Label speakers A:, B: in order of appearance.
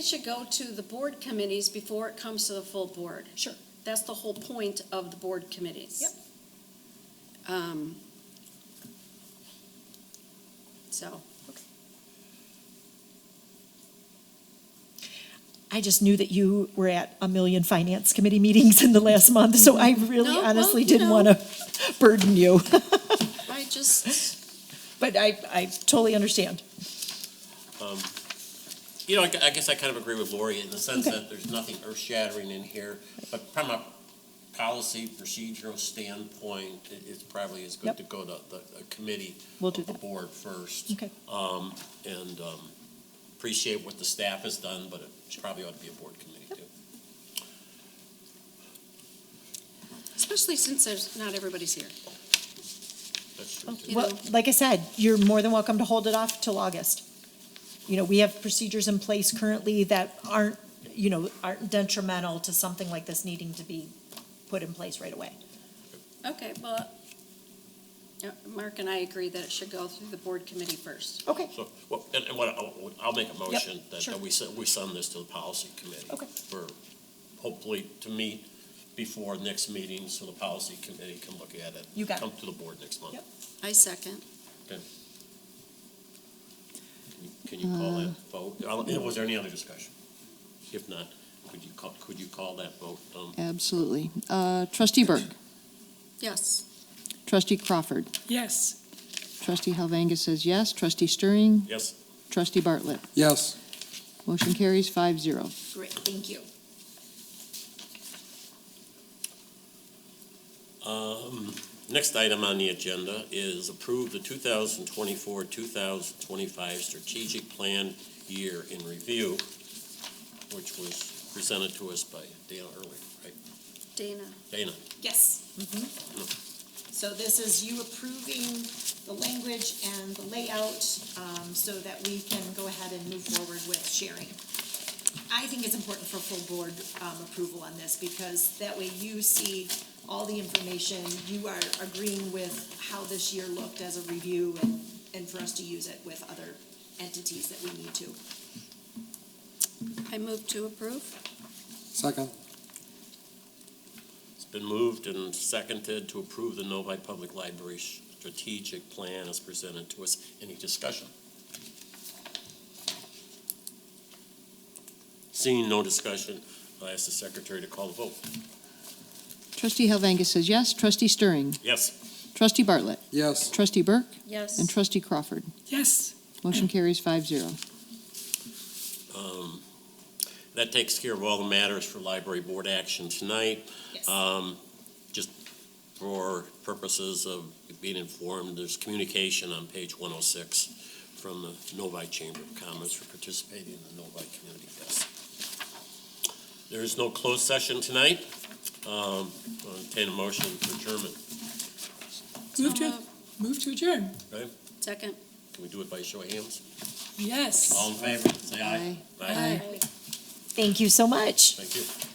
A: It should go to the board committees before it comes to the full board.
B: Sure.
A: That's the whole point of the board committees. Yep. Um, so,
B: I just knew that you were at a million finance committee meetings in the last month, so I really
A: No, well,
B: honestly
A: you
B: didn't
A: know.
B: want to burden you.
A: I just,
B: But I, I totally understand.
C: Um, You know, I, gu- I guess I kind of agree with Lori in the sense
B: Okay.
C: that there's nothing earth shattering in here, but from a policy procedural standpoint, it, it's probably as
B: Yep.
C: good to go to the, a committee
B: We'll do
C: of the
B: that.
C: board first.
B: Okay.
C: Um, and, um, appreciate what the staff has done, but it probably ought to be a board committee too.
A: especially since there's, not everybody's here.
C: That's true too.
A: You
B: Well,
A: know.
B: like I said, you're more than welcome to hold it off till August. You know, we have procedures in place currently that aren't, you know, aren't detrimental to something like this needing to be put in place right away.
A: Okay, well, yeah, Mark and I agree that it should go through the board committee first.
B: Okay,
C: So, well, and, and what, I'll, I'll make a motion that,
B: sure.
C: that we send, we send this to the policy committee.
B: Okay.
C: For, hopefully, to meet before next meeting, so the policy committee can look at it.
B: You got it.
C: Come to the board next month.
B: Yep.
A: I second.
C: Can you- Can you call that vote? I'll- and Was there any other discussion? If not, could you call, could you call that vote? Um,
D: Absolutely. Uh, Trustee Burke,
A: Yes.
D: trustee Crawford,
E: Yes.
D: trustee Helvangus says yes, trustee Stirring,
C: Yes,
D: trustee Bartlett.
F: Yes,
D: Motion carries five zero.
A: Great, thank you.
C: Um, Next item on the agenda is approve the 2024, 2025 strategic plan year in review, which was presented to us by Dana earlier, right?
A: Dana,
C: Dana,
G: Yes. Mm-hmm. So this is you approving the language and the layout, um, so that we can go ahead and move forward with sharing. I think it's important for full board, um, approval on this, because that way you see all the information, you are agreeing with how this year looked as a review, and, and for us to use it with other entities that we need to.
A: I move to approve.
F: second,
C: it's been moved and seconded to approve the Novi Public Library strategic plan as presented to us. Any discussion? Seeing no discussion, I ask the secretary to call the vote.
D: Trustee Helvangus says yes, trustee Stirring,
C: Yes?
D: trustee Bartlett,
F: yes,
D: trustee Burke, and
A: Yes.
D: trustee Crawford.
E: Yes.
D: Motion carries five zero.
C: Um, That takes care of all the matters for library board action tonight.
G: Yes.
C: Um, Just for purposes of being informed, there's communication on page 106 from the Novi Chamber of Commerce for participating in the Novi Community Fest. There is no closed session tonight. Um, I'll Entertain a motion for adjournment.
E: Move to,
A: moved.
E: move to adjourn.
A: Second.
C: Can we do it by show of hands?
E: Yes.
C: All in favor, say aye.
D: Aye.
C: Aye.
B: thank you so much.
C: Thank you.